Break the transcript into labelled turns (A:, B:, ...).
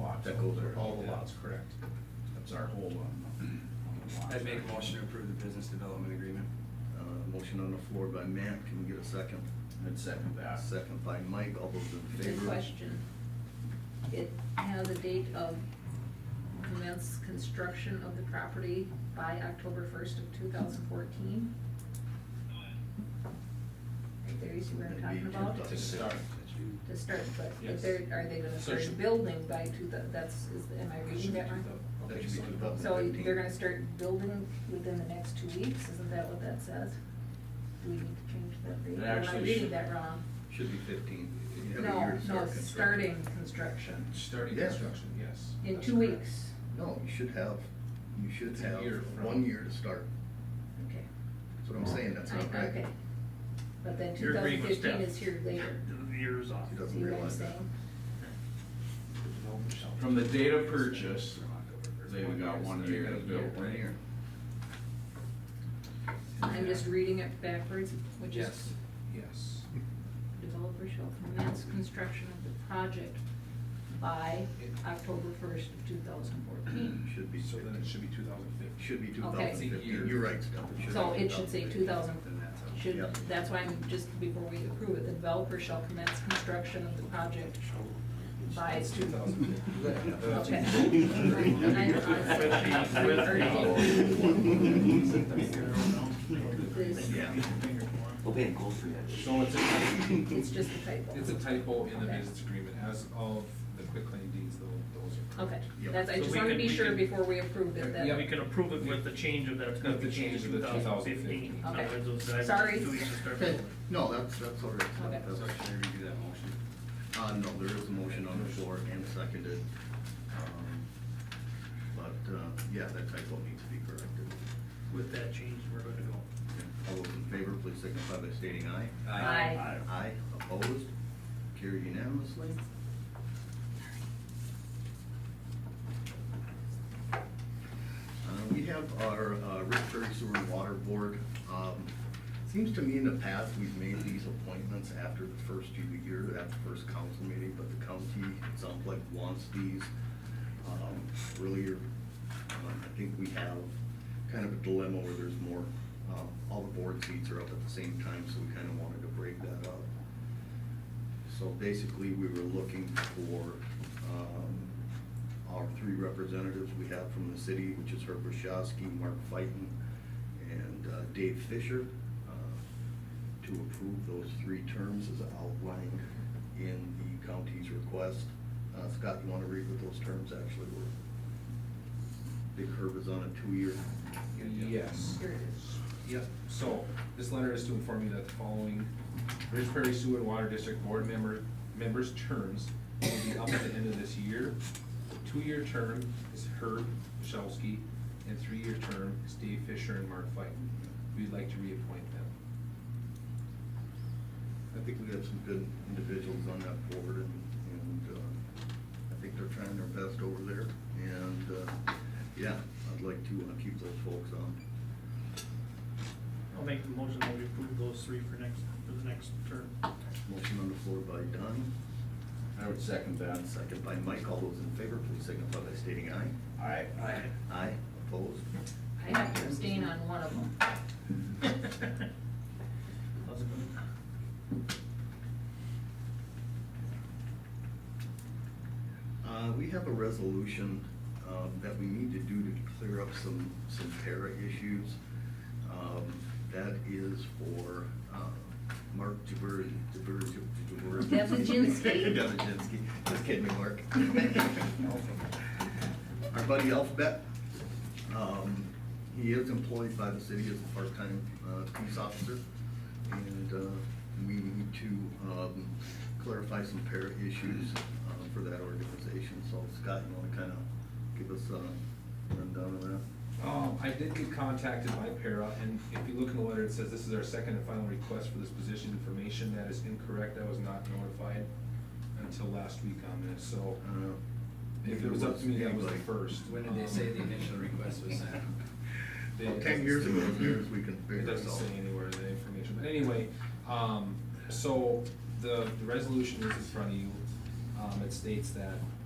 A: lots.
B: That goes there.
A: All the lots, correct.
B: That's our hold
A: um,
B: on. on the
C: I'd make a
B: lots.
C: motion to approve the business development agreement.
D: Uh, Motion on the floor by Matt, can we get a second?
B: I'd second that.
D: Second by Mike, all those in
E: Good
D: favor?
E: question. It has a date of commence construction of the property by October first of two thousand fourteen. Right there, you see what I'm talking about?
D: Maybe
A: To start.
E: To start, but
A: Yes.
E: if they're, are they gonna
A: So it
E: start
A: should-
E: building by two thou- that's, is, am I reading that right?
D: That should be two thousand
E: So
D: fifteen.
E: they're gonna start building within the next two weeks, isn't that what that says? Do we need to change that date?
B: It
E: Or Am I
B: actually
E: reading
B: should-
E: that wrong?
D: Should be fifteen. Every
E: No,
D: year to
E: no,
D: start construction.
E: starting construction
A: Starting
D: Yeah.
A: construction, yes.
E: in
A: that's
E: two
A: correct.
E: weeks.
D: No, you should have, you should
A: It's a
D: have
A: year from-
D: one year to start.
E: Okay.
D: That's what I'm saying, that's not
E: I- Okay.
D: right.
E: But then two
F: You're
E: thousand
F: agreeing with
E: fifteen
F: Steph.
E: is here later.
F: The year is off.
D: He
E: See
D: doesn't
E: what I'm
D: realize that.
E: saying?
B: From the date of purchase, they've got one
D: You're
B: year to
D: gonna
B: build.
D: One year.
E: I'm just reading it backwards, which is
A: Yes, yes.
E: developer shall commence construction of the project by October first of two thousand fourteen.
D: Should be
A: So then it
D: fifteen.
A: should be two thousand fifteen.
D: Should be two thousand
E: Okay.
B: It's a year.
D: fifteen, you're right, Steph. be
E: So it should say two thousand,
C: Then that's how-
E: should,
D: Yep.
E: that's why I'm, just before we approve it, the developer shall commence construction of the project by
A: It's two thousand fifteen.
E: Okay. Please.
G: We'll pay in gold for that.
A: So it's a,
E: It's just a typo.
A: it's a typo in the
E: Okay.
A: business agreement, as of the quitclaim deeds, though, those are.
E: Okay,
A: correct.
D: Yep.
E: that's, I
F: So
E: just
F: we
E: wanna
F: can-
E: be
F: we
E: sure
F: can-
E: before we approve it
A: Yeah.
F: Yeah, we
E: that,
F: can approve it with the change of that it's gonna
A: With
F: be
A: the change
F: changed
A: of
F: to
A: the 2015.
F: 2015. In other words, those guys
E: Sorry.
F: do each start
D: Okay,
F: building.
D: no, that's, that's all right.
E: Okay.
D: That's-
C: So should we redo that motion?
D: Uh, no, there is a motion on the floor and seconded. Um, But, uh, yeah, that typo needs to be corrected.
F: With that change, we're gonna go.
D: All those in favor, please signify by stating aye.
E: Aye.
D: Aye, opposed, carried unanimously. Uh, We have our uh, Rick Perry Sewer and Water Board. Um, Seems to me in the past, we've made these appointments after the first of the year, after the first council meeting, but the county, it sounds like, wants these um, earlier. Um, I think we have kind of a dilemma where there's more, um, all the board seats are up at the same time, so we kind of wanted to break that up. So basically, we were looking for um, our three representatives we have from the city, which is Herb Rashowski, Mark Fighton, and uh, Dave Fisher, uh, to approve those three terms as outlined in the county's request. Uh, Scott, you want to read what those terms actually were? Big Herb is on a two-year.
A: Yes.
E: here it is.
A: Yep, so this letter is to inform you that the following Ridge Prairie Sewer and Water District Board member, members' terms will be up at the end of this year. The Two-year term is Herb Michalski, and three-year term is Dave Fisher and Mark Fighton. We'd like to reappoint them.
D: I think we have some good individuals on that board and, and, uh, I think they're trying their best over there. And, uh, yeah, I'd like to, uh, keep those folks on.
F: I'll make the motion that we approve those three for next, for the next term.
D: Motion on the floor by Don,
B: I would second that.
D: and second by Mike. All those in favor, please signify by stating aye.
B: Aye.
F: Aye.
D: Aye, opposed?
E: I have to abstain on one of them.
D: Uh, we have a resolution, um, that we need to do to clear up some, some para issues. Um, that is for, uh, Mark Jaber, Jaber, Jaber.
E: Debojinski.
D: Debojinski. just kidding, Mark. Our buddy Alphabet, um, he is employed by the city as a part-time, uh, peace officer. And, uh, we need to, um, clarify some para issues, uh, for that organization. So Scott, you wanna kinda give us a rundown of that?
A: Um, I did get contacted by Para, and if you look in the letter, it says this is our second and final request for this position information. That is incorrect. I was not notified until last week on this, so.
D: I don't know.
A: If it was up to me, that was the
D: Anybody.
A: first.
C: When did they say the initial request was sent?
A: They-
D: Well, Ten years ago, as near as we can
A: It
D: figure it
A: doesn't
D: out.
A: say anywhere the information, but anyway, um, so the, the resolution is in front of you. Um, it states that